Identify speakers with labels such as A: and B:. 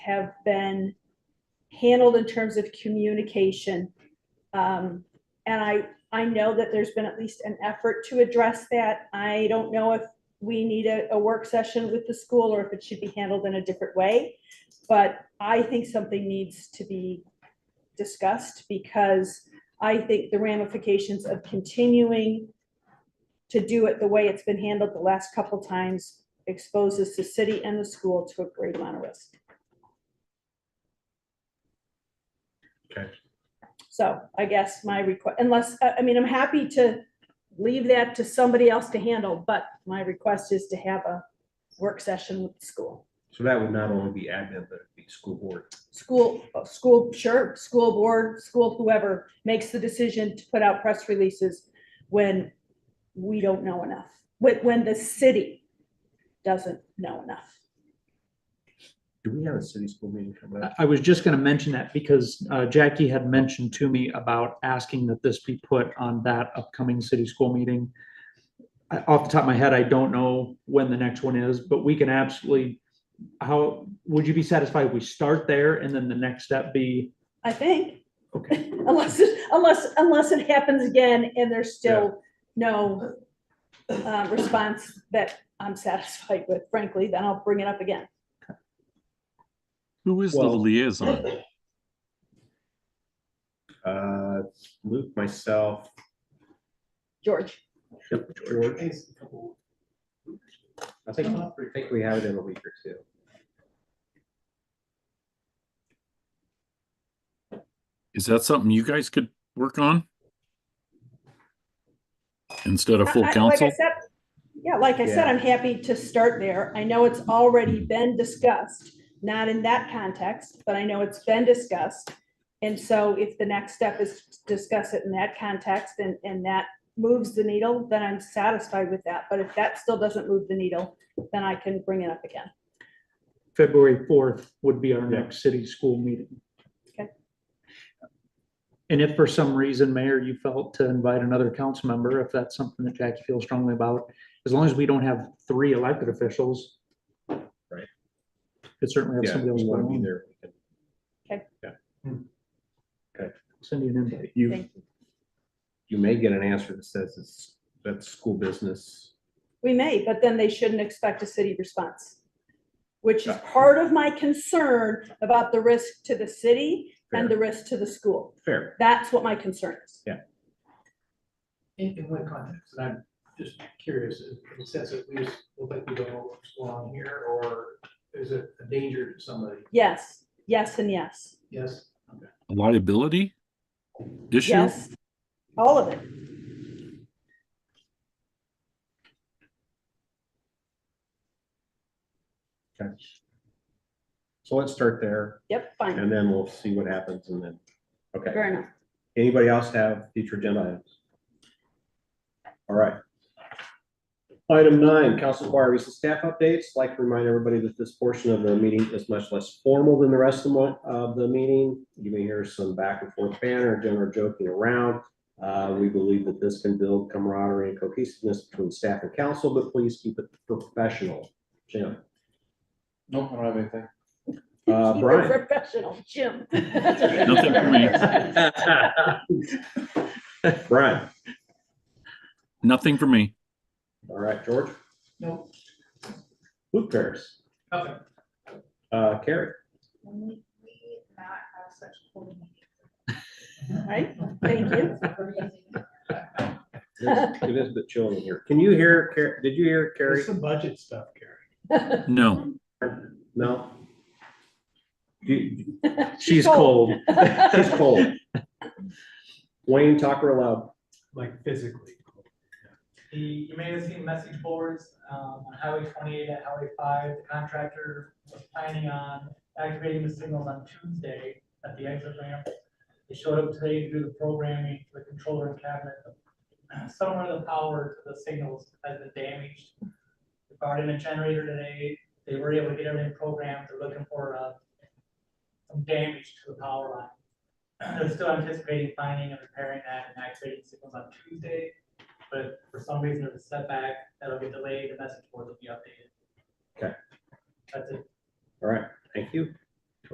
A: have been handled in terms of communication. Um, and I, I know that there's been at least an effort to address that. I don't know if we need a, a work session with the school or if it should be handled in a different way. But I think something needs to be discussed because I think the ramifications of continuing to do it the way it's been handled the last couple times exposes the city and the school to a great amount of risk.
B: Okay.
A: So I guess my request, unless, I, I mean, I'm happy to leave that to somebody else to handle, but my request is to have a work session with the school.
B: So that would not only be admin, but it'd be school board.
A: School, uh, school, sure, school board, school whoever makes the decision to put out press releases when we don't know enough, when, when the city doesn't know enough.
B: Do we have a city school meeting coming
C: I-
B: up?
C: I was just gonna mention that because uh, Jackie had mentioned to me about asking that this be put on that upcoming city school meeting. I- Off the top of my head, I don't know when the next one is, but we can absolutely, how, would you be satisfied if we start there and then the next step be?
A: I think,
C: Okay,
A: unless, it- unless, unless it happens again and there's still no uh, response that I'm satisfied with, frankly, then I'll bring it up again.
D: Who is the
B: Well-
D: liaison?
B: Uh, Luke, myself,
A: George,
B: yep, George. I think, I think we have it in a week or two.
D: Is that something you guys could work on? Instead of
A: I-
D: full
A: I- like I
D: council?
A: said- Yeah, like I said,
B: Yeah.
A: I'm happy to start there. I know it's already been discussed, not in that context, but I know it's been discussed. And so if the next step is to discuss it in that context and, and that moves the needle, then I'm satisfied with that. But if that still doesn't move the needle, then I can bring it up again.
C: February fourth would be our
B: Yeah.
C: next city school meeting.
A: Okay.
C: And if for some reason, Mayor, you felt to invite another council member, if that's something that Jackie feels strongly about, as long as we don't have three elected officials.
B: Right.
C: Could certainly have
B: Yeah,
C: somebody else
B: we want to be
C: going,
B: there. we can-
C: send you an invite.
B: You,
A: Thank
B: you may get an answer that says it's, that's school business.
A: We may, but then they shouldn't expect a city response, which is part of my concern about the risk to the city and the risk to the school.
B: Fair,
A: That's what my concern is.
E: In, in what context? And I'm just curious, in the sense that we just look like we don't know what's going on here, or is it a danger to somebody?
A: Yes, yes, and yes,
E: Yes?
D: A Liability? Issue?
A: yes, all of it.
B: okay. So let's start there
A: Yep, fine,
B: and then we'll see what happens and then, okay.
A: fair enough.
B: Anybody else have future agenda items? All right. Item nine, council inquiries and staff updates. Like to remind everybody that this portion of the meeting is much less formal than the rest of the, of the meeting. You may hear some back and forth banter, general joking around. Uh, we believe that this can build camaraderie and cohesiveness between staff and council, but please keep it professional. Jim,
F: Nope, I don't have anything.
B: uh,
A: Keep it
B: Brian.
A: Professional, Jim.
D: Nothing for me.
B: Brian,
D: Nothing for me.
B: all right, George,
E: No.
B: Luke Paris,
E: Okay.
B: uh, Carrie.
G: When we, we not have such cool
A: Right, thank you.
G: meetings.
B: It is- it is a bit chilly in here. Can you hear, Car- did you hear Carrie?
E: There's some budget stuff, Gary.
D: No.
B: No? You-
C: She's cold.
B: She's cold. Wayne, talk real loud.
E: Like physically.
H: The, you may have seen message boards, um, on Highway twenty-eight at Highway five, the contractor was planning on activating the signals on Tuesday at the exit ramp. They showed up today to do the programming, to the controller and cabinet. Some of the power to the signals has been damaged. They brought in a generator today, they were able to get everything programmed, they're looking for, uh, some damage to the power line. They're still anticipating finding and repairing that and activating signals on Tuesday but for some reason there's a setback, that'll get delayed, the message board will be updated.
B: Okay.
H: That's it.
B: All right, thank you.